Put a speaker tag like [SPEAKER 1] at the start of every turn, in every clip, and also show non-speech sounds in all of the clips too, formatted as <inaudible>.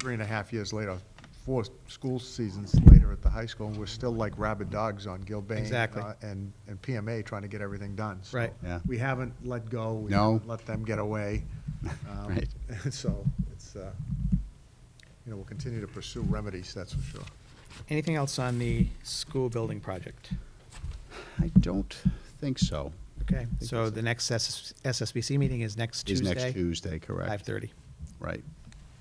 [SPEAKER 1] three and a half years later, four school seasons later at the high school, and we're still like rabid dogs on Gilbane.
[SPEAKER 2] Exactly.
[SPEAKER 1] uh, And, and PMA trying to get everything done. So
[SPEAKER 2] Right.
[SPEAKER 3] Yeah.
[SPEAKER 1] We haven't let go. we
[SPEAKER 3] No.
[SPEAKER 1] haven't Let them get
[SPEAKER 3] <laughs>
[SPEAKER 1] away. Um,
[SPEAKER 3] Right.
[SPEAKER 1] And <laughs> so it's, uh, you know, we'll continue to pursue remedies, that's for sure.
[SPEAKER 2] Anything else on the school building project?
[SPEAKER 3] I don't think so.
[SPEAKER 2] Okay, so the next SS SSBC meeting is next
[SPEAKER 3] Is
[SPEAKER 2] Tuesday?
[SPEAKER 3] next Tuesday, correct?
[SPEAKER 2] Five thirty.
[SPEAKER 3] Right.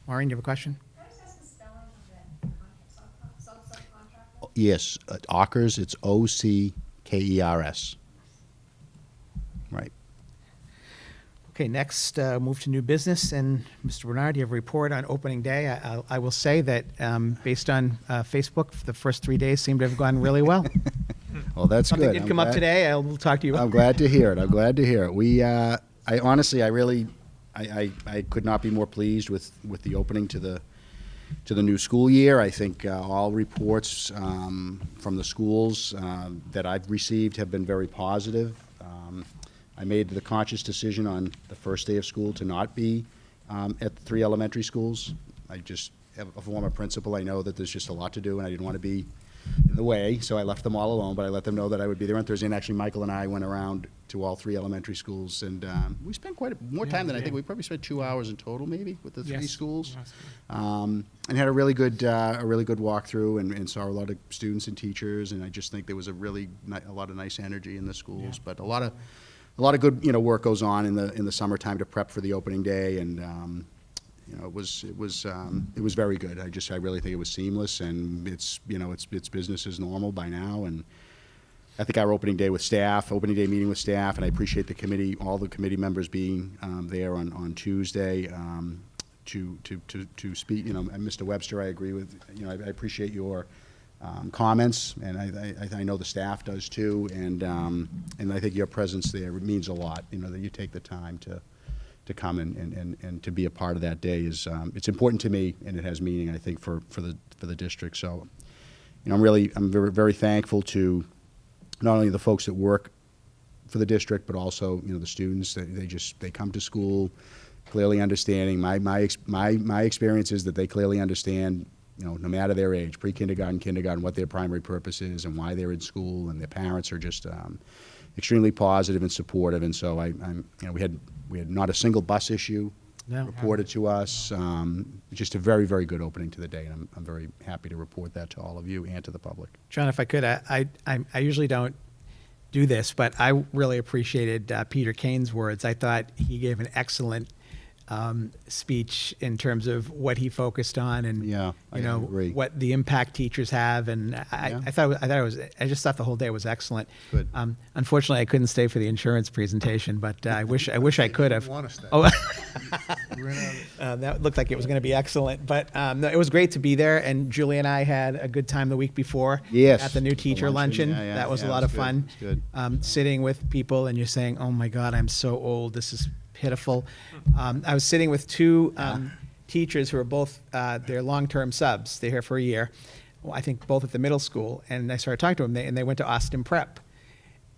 [SPEAKER 2] Maureen, do you have a question?
[SPEAKER 4] Can I just ask the spelling of that contract, sub- sub- subcontractor?
[SPEAKER 3] Yes, uh, Ockers, it's O-C-K-E-R-S. E Right.
[SPEAKER 2] Okay, next, uh, move to new business, and Mr. Bernard, you have a report on opening day. I- I'll- I will say that, um, based on uh, Facebook, the first three days seem to have gone really
[SPEAKER 3] <laughs>
[SPEAKER 2] well.
[SPEAKER 3] Well, that's good.
[SPEAKER 2] Something did
[SPEAKER 3] I'm
[SPEAKER 2] come up
[SPEAKER 3] glad- Oh,
[SPEAKER 2] today, I will talk to you about.
[SPEAKER 3] I'm glad to hear it. I'm glad to hear it. We, uh, I honestly, I really, I, I, I could not be more pleased with, with the opening to the, to the new school year. I think uh, all reports um, from the schools um, that I've received have been very positive. Um, I made the conscious decision on the first day of school to not be um, at the three elementary schools. I just, as a former principal, I know that there's just a lot to do, and I didn't want to be in the way, so I left them all alone, but I let them know that I would be there on Thursday. And actually, Michael and I went around to all three elementary schools, and um, we spent quite a, more time than I think. We probably spent two hours in total, maybe, with the three
[SPEAKER 2] Yes.
[SPEAKER 3] schools um, and had a really good uh, a really good walkthrough and, and saw a lot of students and teachers and I just think there was a really ni- a lot of nice energy in the schools but a lot of a lot of good you know work goes on in the in the summertime to prep for the opening day and um, you know it was it was um, it was very good I just I really think it was seamless and it's you know it's it's business as normal by now and I think our opening day with staff, opening day meeting with staff, and I appreciate the committee, all the committee members being um, there on, on Tuesday um, to, to, to, to speak. You know, and Mr. Webster, I agree with, you know, I, I appreciate your um, comments, and I, I, I know the staff does too, and, um, and I think your presence there means a lot, you know, that you take the time to, to come and, and, and, and to be a part of that day is, um, it's important to me, and it has meaning, I think, for, for the, for the district. So, you know, I'm really, I'm very, very thankful to not only the folks that work for the district, but also, you know, the students, they, they just, they come to school clearly understanding. My, my, ex- my, my experience is that they clearly understand, you know, no matter their age, pre-kindergarten, kindergarten, what their primary purpose is and why they're in school, and their parents are just, um, extremely positive and supportive. And so I, I'm, you know, we had, we had not a single bus issue
[SPEAKER 2] No.
[SPEAKER 3] reported to us. Um, just a very, very good opening to the day, and I'm, I'm very happy to report that to all of you and to the public.
[SPEAKER 2] John, if I could, I, I, I'm- I usually don't do this, but I really appreciated uh, Peter Kane's words. I thought he gave an excellent um, speech in terms of what he focused on and
[SPEAKER 3] Yeah, I
[SPEAKER 2] you know
[SPEAKER 3] agree.
[SPEAKER 2] what the impact teachers have. And I,
[SPEAKER 3] Yeah.
[SPEAKER 2] I thought I thought it was I just thought the whole day was excellent.
[SPEAKER 3] Good.
[SPEAKER 2] Um, unfortunately, I couldn't stay for the insurance presentation, but uh, I wish I wish I could have.
[SPEAKER 1] Wanna stay. <laughs>
[SPEAKER 2] Oh.
[SPEAKER 1] We're in a-
[SPEAKER 2] Uh, that looked like it was going to be excellent, but um, no, it was great to be there. And Julie and I had a good time the week before.
[SPEAKER 3] Yes.
[SPEAKER 2] At the new
[SPEAKER 3] The
[SPEAKER 2] teacher luncheon.
[SPEAKER 3] luncheon, yeah, yeah,
[SPEAKER 2] that was
[SPEAKER 3] yeah,
[SPEAKER 2] a
[SPEAKER 3] it
[SPEAKER 2] lot
[SPEAKER 3] was
[SPEAKER 2] of
[SPEAKER 3] good,
[SPEAKER 2] fun.
[SPEAKER 3] it was good.
[SPEAKER 2] Um, Sitting with people and you're saying, oh my God, I'm so old. This is pitiful. Um, I was sitting with two um, teachers who are both, uh, they're long term subs. They're here for a year. Well, I think both at the middle school. And I started talking to them, they, and they went to Austin Prep.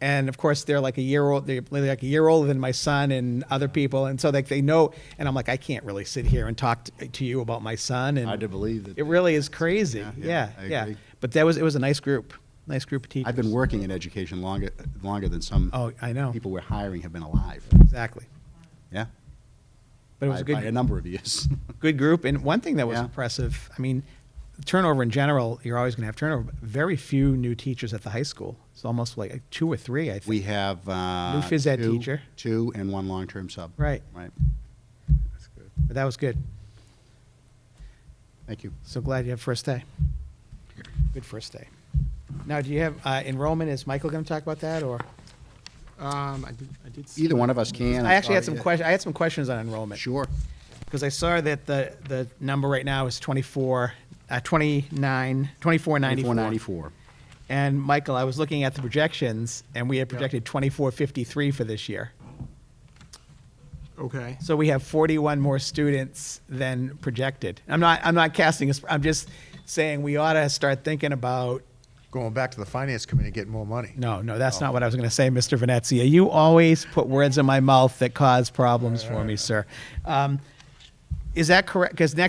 [SPEAKER 2] And of course, they're like a year old. They're like a year older than my son and other people, and so like they know. And I'm like, I can't really sit here and talk t- to you about my son. And
[SPEAKER 3] Hard to believe that-
[SPEAKER 2] it really is crazy.
[SPEAKER 3] Yeah,
[SPEAKER 2] Yeah,
[SPEAKER 3] yeah,
[SPEAKER 2] yeah.
[SPEAKER 3] I agree.
[SPEAKER 2] But that was it was a nice group, nice group of teachers.
[SPEAKER 3] I've been working in education longer, longer than some.
[SPEAKER 2] Oh, I know.
[SPEAKER 3] People we're hiring have been alive,
[SPEAKER 2] exactly.
[SPEAKER 3] yeah?
[SPEAKER 2] But it was
[SPEAKER 3] By-
[SPEAKER 2] a good
[SPEAKER 3] By a number of years. <laughs>
[SPEAKER 2] good group. And one thing that was
[SPEAKER 3] Yeah.
[SPEAKER 2] impressive, I mean, turnover in general, you're always going to have turnover. But very few new teachers at the high school. It's almost like two or three, I think.
[SPEAKER 3] We have, uh.
[SPEAKER 2] New phys ed
[SPEAKER 3] two-
[SPEAKER 2] teacher.
[SPEAKER 3] Two and one long-term sub.
[SPEAKER 2] Right.
[SPEAKER 3] Right,
[SPEAKER 1] That's good.
[SPEAKER 2] but that was good.
[SPEAKER 3] thank you.
[SPEAKER 2] So glad you have first day. Good first day. Now, do you have uh, enrollment? Is Michael going to talk about that, or
[SPEAKER 5] Um, I did, I did. see-
[SPEAKER 3] Either one of us can. I'm
[SPEAKER 2] I actually had
[SPEAKER 3] sorry.
[SPEAKER 2] some questions. I had some questions on enrollment
[SPEAKER 3] Sure,
[SPEAKER 2] because I saw that the the number right now is 24, uh, 29, 2494.
[SPEAKER 3] ninety-four, ninety-four.
[SPEAKER 2] And Michael, I was looking at the projections, and we had projected 2453 for this year.
[SPEAKER 5] Okay.
[SPEAKER 2] So we have 41 more students than projected. I'm not. I'm not casting. i I'm just saying we ought to start thinking about
[SPEAKER 1] Going back to the finance committee, getting more money.
[SPEAKER 2] No, no, that's not what I was going to say, Mr. Venezia. You always put words in my mouth that cause problems for me, sir. Um, Is that correct? Because next